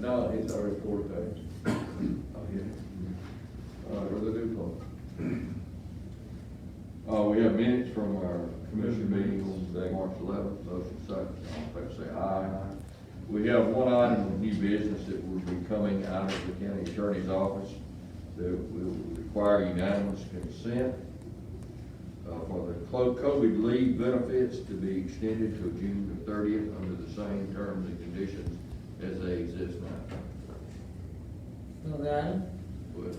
No, he's already forward page. Oh, yeah. Uh, or the duplex. Uh, we have minutes from our commission meeting on today, March eleventh, motion second, all in favor say aye. We have one item of new business that will be coming out of the county attorney's office that will require unanimous consent uh, for the clo- COVID leave benefits to be extended to June the thirtieth under the same terms and conditions as they exist now. Move the item. With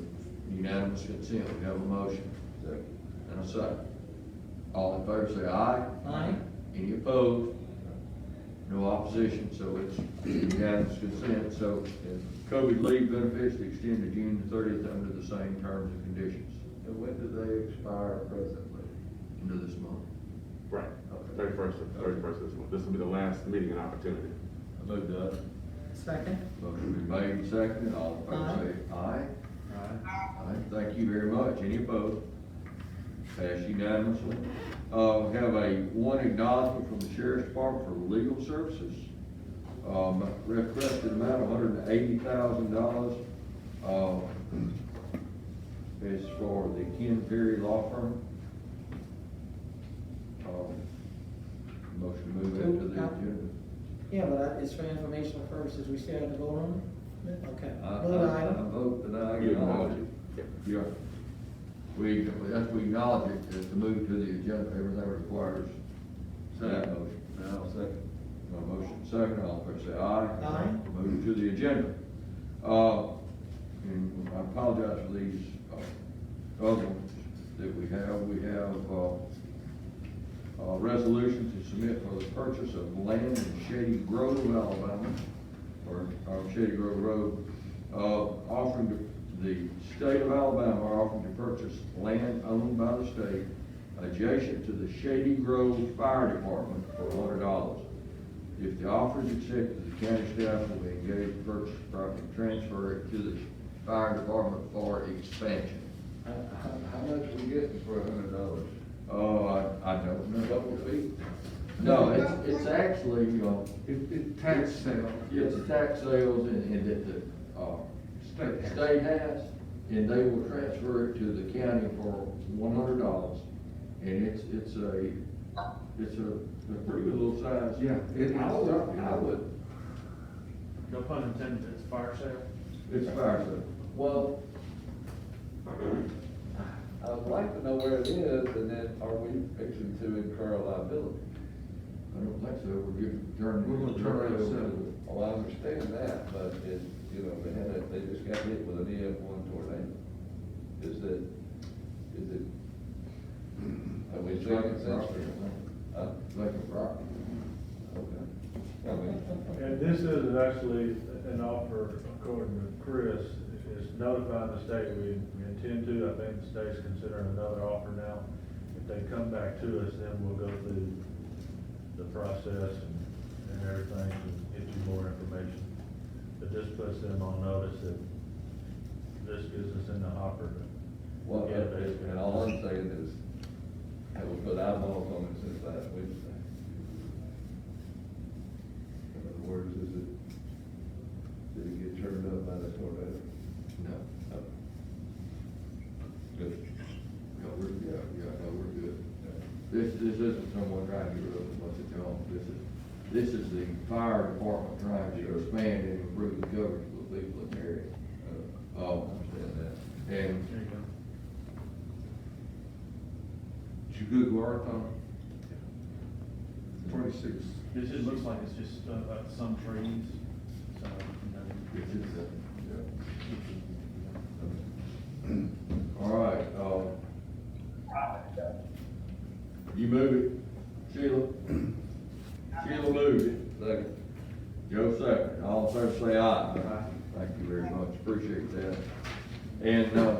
unanimous consent, we have a motion. Second. And a second. All in favor say aye. Aye. Any opposed? No opposition, so it's unanimous consent, so uh, COVID leave benefits to extend to June the thirtieth under the same terms and conditions. And when do they expire presently? End of this month. Right, Okay. thirty-first, thirty-first this one. This will be the last meeting and opportunity. I move that. Second. Motion been made and seconded, all in favor say aye. Aye. Aye, thank you very much. Any opposed? Passed unanimously. Uh, we have a one acknowledgement from the sheriff's department for legal services. Um, requested amount of hundred and eighty thousand dollars, uh, is for the Ken Perry Law Firm. Um, Motion to move into the agenda. Yeah, but I- it's for informational purposes, we still have to vote on it? Okay. I, Move the I, I item. vote that I acknowledge it. Yep. Yeah. We, that's, we acknowledge it, is to move to the agenda, everything requires that motion. Now, second. No motion, second, all in favor, say aye. Aye. Move to the agenda. Uh, and I apologize for these, uh, other ones that we have. We have, uh, uh, resolution to submit for the purchase of land in Shady Grove, Alabama, or, or Shady Grove Road, uh, offering to, the state of Alabama are offering to purchase land owned by the state adjacent to the Shady Grove Fire Department for hundred dollars. If the offer is accepted, the county staff will be engaged to purchase the property and transfer it to the fire department for expansion. How, how, how much we getting for a hundred dollars? Oh, I, I don't know. No, it's, it's actually, you know, It, it tax sale. it's the tax sales and, and that the, uh, State tax. state has, and they will transfer it to the county for one hundred dollars. And it's, it's a, it's a, a pretty good little size. Yeah, it, I would, I would No pun intended, it's fire sale. It's fire sale. Well, I would like to know where it is, and then are we fixing to incur a liability? I don't think so, we're giving, turning. We're gonna turn it over. Oh, I understand that, but it, you know, they had, a- they just got hit with an EF one tornado. Is it, is it? Are we It's like a thinking property, sensible? Huh? like a property. Okay. I mean, And this is actually an offer, according to Chris, is notifying the state, we we intend to, I think the state's considering another offer now. If they come back to us, then we'll go through the process and, and everything to get you more information. But this puts them on notice that this gives us in the hopper. Well, Yeah, basically. and all I'm saying is, have we put eyeballs on it since last Wednesday? In other words, is it, did it get turned up by the tornado? Oh. No, No. Good. no, we're, yeah, yeah, no, we're good. This, this isn't someone trying to get rid of a bunch of junk, this is, this is the fire department trying to expand and improve the coverage for the people in the area. Uh, Oh, Understand that. and There you go. did you Google Earth on twenty-six. This just looks like it's just, uh, uh, some trees, so, you know. it? It's just a- Yeah. All right, um. You move it, Sheila. Sheila moved it. Second. Joe second, all in favor say aye. Thank you very much, appreciate that. And, uh,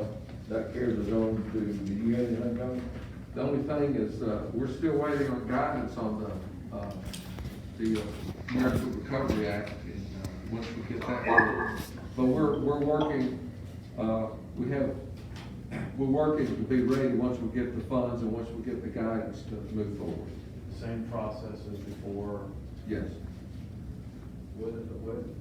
that carries us on to, do you have anything coming? The only thing is, uh, we're still waiting on guidance on the, uh, the uh, American Recovery Act, and, uh, once we get that, we'll- but we're, we're working, uh, we have, we're working to be ready once we get the funds and once we get the guidance to move forward. Same process as before, Yes. When, when,